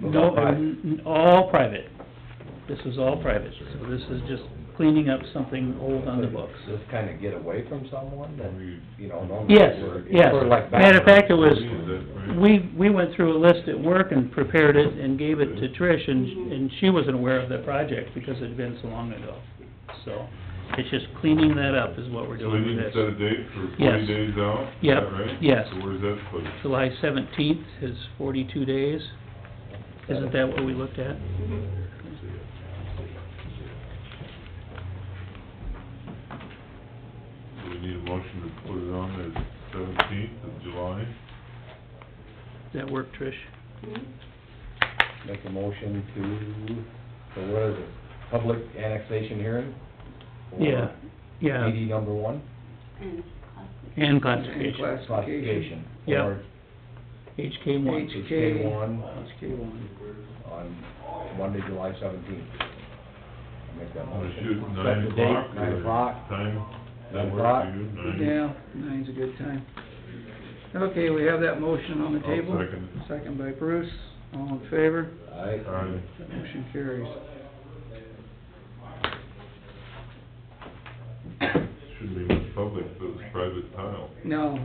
No, Not private. n- n- all private. This is all private, so this is just cleaning up something old on the books. Does this kinda get away from someone that, you know, normally? Yes, we're- it's yes. Sort of like. Matter of fact, it was, Right. we, we went through a list at work and prepared it and gave it to Trish, and, and she wasn't aware of the project because it had been so long ago. So, it's just cleaning that up is what we're So we doing need with to this. set a date for Yes. forty days out? is Yep, that right? yes. So where's that put? July seventeenth is forty-two days. Isn't that what we looked at? Do we need a motion to put it on the seventeenth of July? Does that work, Trish? Make a motion to, so what is it, public annexation hearing? for Yeah, yeah, DD number one? And and And classification, classification. Yep. Or HK one. HK one. HK one. on Monday, July seventeenth. Make that Wanna motion. shoot Set nine the date, o'clock? Nine or o'clock. Time? Nine That o'clock. works for you? Nine? Yeah, nine's a good time. Okay, we have that motion on the I'll table. second it. Second by Bruce, all in favor, Aye. Aye. that motion carries. Shouldn't be with public, but it's private tile. No.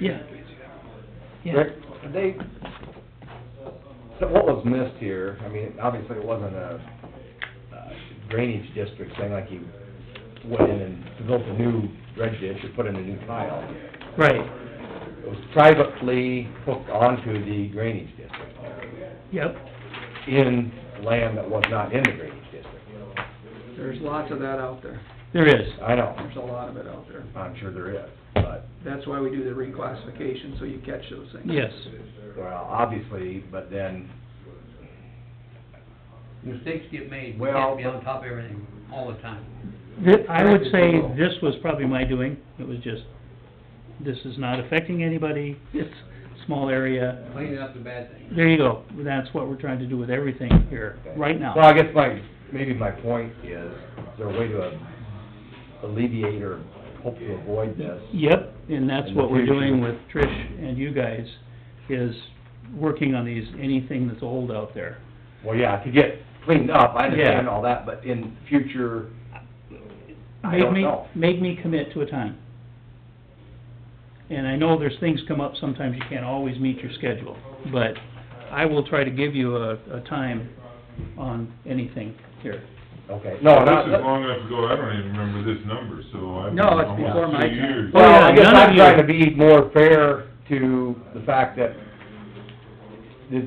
Yeah. Yeah, Rick, they, so what was missed here, I mean, obviously it wasn't a uh, drainage district thing like you went in and built a new dredge ditch or put in a new tile. right, It was privately hooked onto the drainage district yep, in land that was not in the drainage district. There's lots of that out there, there is, I know, there's a lot of it out there. I'm sure there is, but, That's why we do the reclassification, so you catch those things. yes. well, obviously, but then, Mistakes get made, we Well, can't be on top of everything all the time. Thi- I would say this was probably my doing, it was just, this is not affecting anybody, it's a small area. Cleaning up the bad things. There you go, that's what we're trying to do with everything here, right Well, now. I guess my, maybe my point is, is there a way to alleviate or hope to avoid this? Yep, and that's In the what we're doing future. with Trish and you guys, is working on these, anything that's old out there. Well, yeah, to get cleaned up, I understand Yeah. all that, but in future, I Make don't me, know. make me commit to a time. And I know there's things come up, sometimes you can't always meet your schedule, but I will try to give you a, a time on anything here. Okay, no, not, This is long enough ago, I don't even remember this number, so I've been No, it's before almost my two time. years. Oh, well, yeah, I guess none of I'm you- trying to be more fair to the fact that it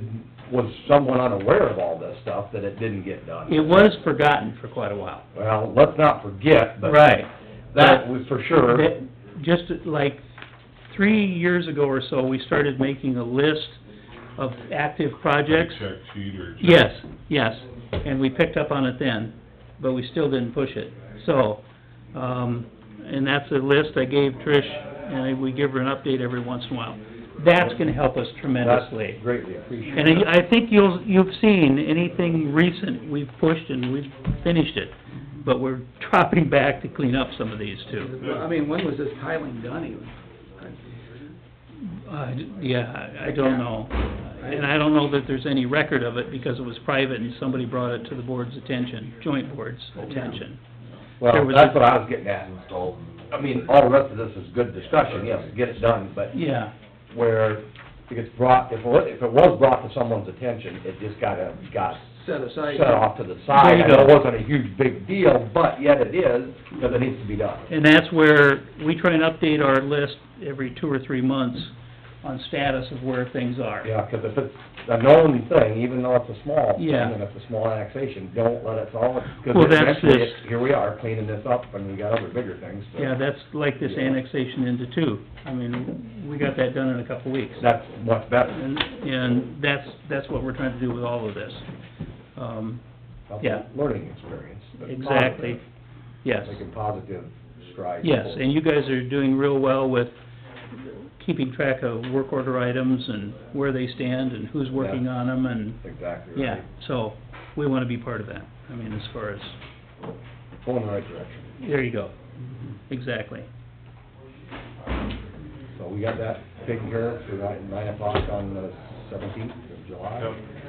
was someone unaware of all this stuff, that it didn't get done. It was forgotten for quite a while. Well, let's not forget, but that was for sure. That- Just like, three years ago or so, we started making a list of active projects. Like Check sheet or. check- Yes, yes, and we picked up on it then, but we still didn't push it. So, um, and that's a list I gave Trish, and I- we give her an update every once in a while. That's gonna help us tremendously. That's Greatly appreciated. And I I think you'll, you've seen anything recent, we've pushed and we've finished it, but we're dropping back to clean up some of these too. I mean, when was this tiling done even? Uh, yeah, I- I don't know. And I don't know that there's any record of it because it was private and somebody brought it to the board's attention, joint board's attention. there Well, was that's a- what I was getting at. I mean, all the rest of this is good discussion, yes, get it done, but e- Yeah, where it gets brought, if it, wa- if it was brought to someone's attention, it just got, a- got Set aside. set off to the side. There you I know it go. wasn't a huge big deal, but yet it is, because it needs to be done. and that's where we try and update our list every two or three months on status of where things are. Yeah, because if it's a known thing, even though it's a small thing, Yeah. and it's a small annexation, don't let it solve it. Well, Because that's eventually, this- it's- here we are cleaning this up, and we got other bigger things, so. Yeah, that's like this annexation into two. I mean, we got that done in a couple of weeks. That's much better. And, and that's, that's what we're trying to do with all of this. Um, That's a Yeah. Learning experience. that's exactly, positive. yes. Making positive strides. Yes, forward. and you guys are doing real well with keeping track of work order items and where they stand and who's working on them and, Exactly right. yeah. So, we wanna be part of that, I mean, as far as Going in the right direction. There you go, exactly. So we got that taken care of, so we're at nine o'clock on the seventeenth of July. Yep.